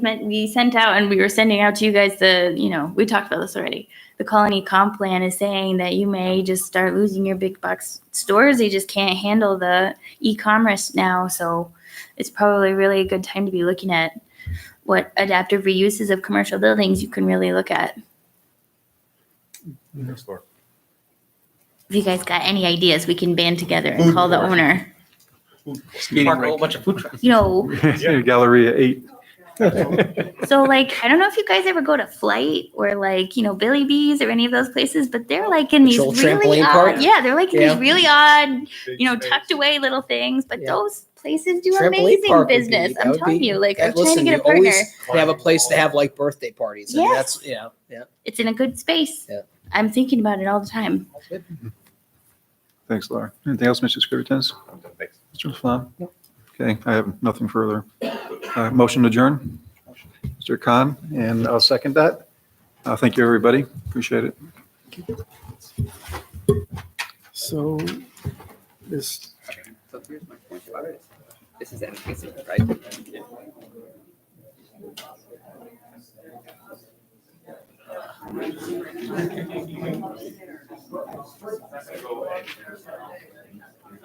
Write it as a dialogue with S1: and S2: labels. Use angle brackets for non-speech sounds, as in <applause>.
S1: meant we sent out and we were sending out to you guys the, you know, we talked about this already. The colony comp plan is saying that you may just start losing your big box stores. They just can't handle the e-commerce now. So it's probably really a good time to be looking at what adaptive reuses of commercial buildings you can really look at.
S2: Next door.
S1: If you guys got any ideas, we can band together and call the owner.
S3: Park a whole bunch of food trucks.
S1: You
S4: <laughs>
S1: know,
S4: Galleria eight.
S1: So like I don't know if you guys ever go to Flight or like you know Billy Bees or any of those places, but they're like in these
S3: Little
S1: really
S3: Oh, trampoline
S1: odd,
S3: park?
S1: yeah, they're like in
S3: Yeah.
S1: these really odd, you know, tucked away little things. But
S3: Yeah.
S1: those places do
S3: Trampoline
S1: amazing
S3: park would be-
S1: business.
S3: that
S1: I'm
S3: would
S1: telling
S3: be-
S1: you, like
S3: that-
S1: I'm trying to
S3: listen,
S1: get a
S3: we
S1: partner.
S3: always Have a place to have like birthday parties. And
S1: Yes.
S3: that's, yeah, yeah.
S1: It's in a good space.
S3: Yeah.
S1: I'm thinking about it all the time.
S4: Thanks, Laura. Anything else, Mr. Scrivett?
S2: I'm done. Thanks.
S4: Mr. Laflamme? Okay, I have nothing further. Uh, Motion adjourn. Mr. Khan, and I'll second that. Uh, Thank you, everybody. Appreciate it.
S5: So this,
S6: So here's my point about it. This is antithesis, right?